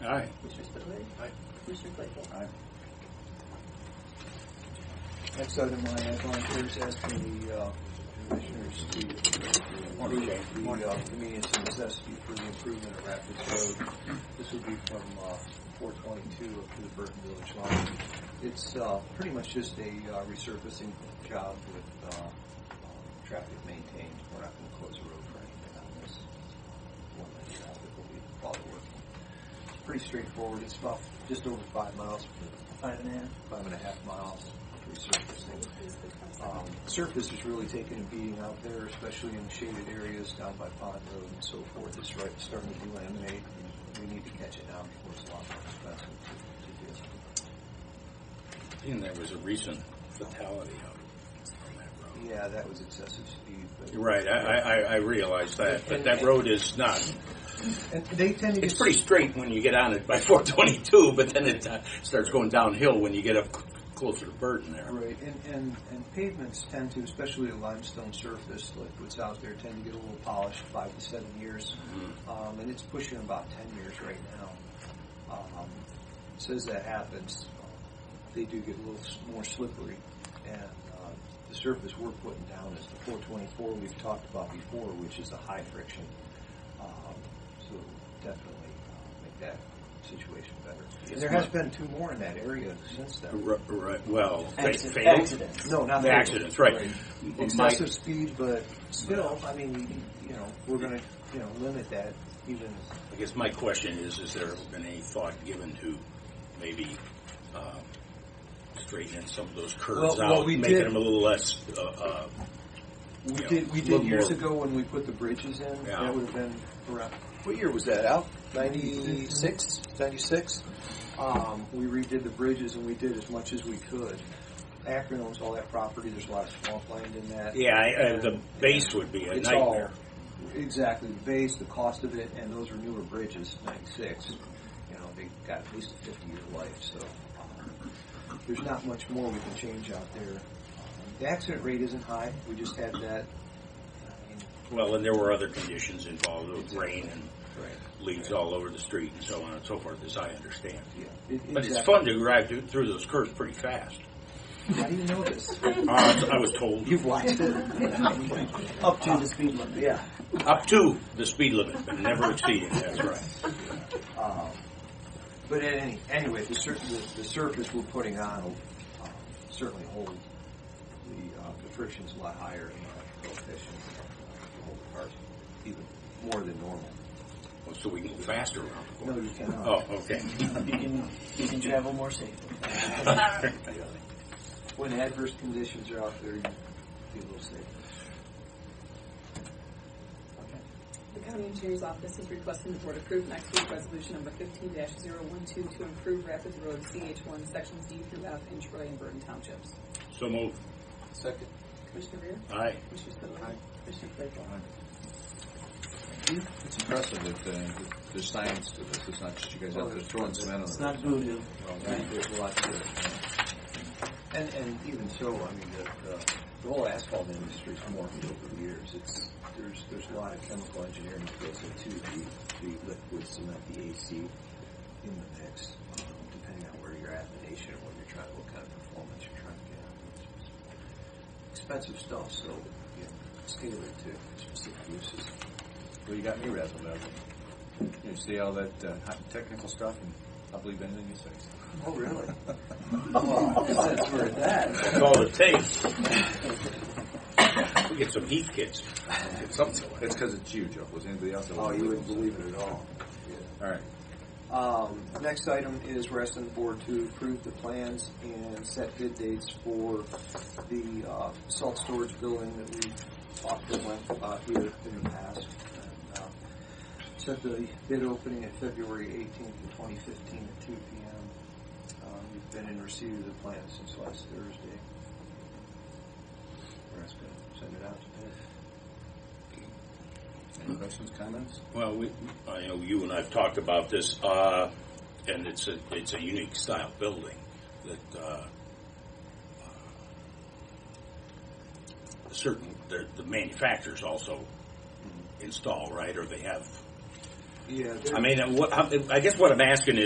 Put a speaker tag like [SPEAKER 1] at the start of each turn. [SPEAKER 1] time. Next item I have on here is asking the uh, commissioners to approve the uh, convenience and necessity for the improvement of Rapids Road. This would be from uh, 422 up to the Burton Village line. It's uh, pretty much just a uh, resurfacing job with uh, uh, traffic maintained. We're not going to close the road for anything on this. One lane traffic will be followed working pretty straightforward. It's about just over five miles, five and a half, five and a half miles resurfacing. Um, surface is really taking a beating out there, especially in shaded areas down by Pond Road and so forth. It's right starting to delaminate. and We need to catch it now before it's a lot more expensive to, to do.
[SPEAKER 2] And there was a recent fatality out on that road.
[SPEAKER 1] Yeah, that was excessive speed. But
[SPEAKER 2] You're right, I, I, I- I realize that, but that road is not,
[SPEAKER 1] And they tend to
[SPEAKER 2] it's
[SPEAKER 1] get-
[SPEAKER 2] pretty straight when you get on it by 422, but then it uh, starts going downhill when you get up c- closer to Burton there.
[SPEAKER 1] Right, and, and, and pavements tend to, especially a limestone surface like what's out there, tend to get a little polished five to seven years. Um, and it's pushing about 10 years right now. Um, so as that happens, uh, they do get a little s- more slippery. And uh, the surface we're putting down is the 424 we've talked about before, which is a high friction. Um, so definitely uh, make that situation better.
[SPEAKER 2] Yes,
[SPEAKER 1] there has
[SPEAKER 2] ma'am.
[SPEAKER 1] been two more in that area since then.
[SPEAKER 2] R- Right, well, fa-
[SPEAKER 3] Accident-
[SPEAKER 2] fatal-
[SPEAKER 3] accidents.
[SPEAKER 1] No, not
[SPEAKER 2] The
[SPEAKER 1] fatal.
[SPEAKER 2] accidents, right. My-
[SPEAKER 1] Excessive speed, but still, I mean, you know, we're going to, you know, limit that even.
[SPEAKER 2] I guess my question is, is there been any thought given to maybe um, straightening some of those curves
[SPEAKER 1] Well- well,
[SPEAKER 2] out,
[SPEAKER 1] we
[SPEAKER 2] making
[SPEAKER 1] did-
[SPEAKER 2] them a little less, uh, uh,
[SPEAKER 1] We
[SPEAKER 2] Yeah,
[SPEAKER 1] did, we
[SPEAKER 2] a little
[SPEAKER 1] did years
[SPEAKER 2] more.
[SPEAKER 1] ago when we put the bridges in,
[SPEAKER 2] Yeah.
[SPEAKER 1] that would have been around, what year was that, Al? 96, 96? Um, we redid the bridges and we did as much as we could. Akron owns all that property, there's a lot of swampland in that.
[SPEAKER 2] yeah, I- I- the base would be a
[SPEAKER 1] It's
[SPEAKER 2] nightmare.
[SPEAKER 1] all exactly the base, the cost of it, and those are newer bridges, '96. You know, they got at least a 50 year life, so um, there's not much more we can change out there. Um, the accident rate isn't high. We just had that. I mean,
[SPEAKER 2] Well, and there were other conditions involved with rain and
[SPEAKER 1] right.
[SPEAKER 2] leaves all over the street and so on and so forth, as I understand.
[SPEAKER 1] Yeah. It,
[SPEAKER 2] But it's
[SPEAKER 1] exactly.
[SPEAKER 2] fun to drive through- through those curves pretty fast.
[SPEAKER 1] How do you know this?
[SPEAKER 2] Uh, I was told,
[SPEAKER 1] You've watched it.
[SPEAKER 3] Up to the speed limit, yeah.
[SPEAKER 2] up to the speed limit, but never exceeding, that's right.
[SPEAKER 1] Um, but at any, anyway, the, sur- the, the surface we're putting on will um, certainly hold the, uh, the friction's a lot higher in the coefficient uh, to hold the cars even more than normal.
[SPEAKER 2] Well, Oh, So we can go faster around the
[SPEAKER 1] No,
[SPEAKER 2] corner.
[SPEAKER 1] you cannot.
[SPEAKER 2] Oh, okay.
[SPEAKER 3] You can, you can travel more safely.
[SPEAKER 1] When adverse conditions are out there, you be a little safer.
[SPEAKER 4] The county engineer's office is requesting the board approve next week's resolution number fifteen 12 to improve Rapids Road CH one sections D through F in Troy and Burton Townships.
[SPEAKER 2] So move.
[SPEAKER 1] Second.
[SPEAKER 4] Commissioner Rea?
[SPEAKER 2] Aye.
[SPEAKER 4] Commissioner Spudler? Commissioner Claypool?
[SPEAKER 5] It's impressive that uh, th- there's science to this. It's not just you guys out there throwing cement on
[SPEAKER 3] It's
[SPEAKER 5] it.
[SPEAKER 3] not voodoo.
[SPEAKER 1] There's a lot to it. And, and even so, I mean, the, the, the whole asphalt industry's morphed over the years. It's, there's, there's a lot of chemical engineering that goes into the, the liquid cement, the AC in the mix, um, depending on where you're at in the nation, what you're trying, what kind of performance you're trying to get out of it. It's Expensive stuff, so, you know, scale it to specific uses.
[SPEAKER 5] Well, you got me razzled dazzled. You see all that uh, hot technical stuff, and I believe anything you say.
[SPEAKER 1] Oh, really? Well, since we're at that.
[SPEAKER 2] That's all it takes. We get some heat kits. Get something.
[SPEAKER 5] It's because it's you, Joe. Was anybody else? that
[SPEAKER 1] Oh,
[SPEAKER 5] was
[SPEAKER 1] you wouldn't believe it at all.
[SPEAKER 5] All right.
[SPEAKER 1] Um, next item is we're asking the board to approve the plans and set bid dates for the uh, salt storage building that we talked at length about here in the past. And, uh, Set the bid opening at February 18th, of 2015 at 2 p.m. Um, We've been in receipt of the plans since last Thursday. We're asking to send it out to bid.
[SPEAKER 5] Any questions, comments?
[SPEAKER 2] Well, we, I know you and I've talked about this, uh, and it's a, it's a unique style building that, uh, uh, certain, the, the manufacturers also install, right, or they have,
[SPEAKER 1] Yeah.
[SPEAKER 2] I mean, what, I guess what I'm asking is.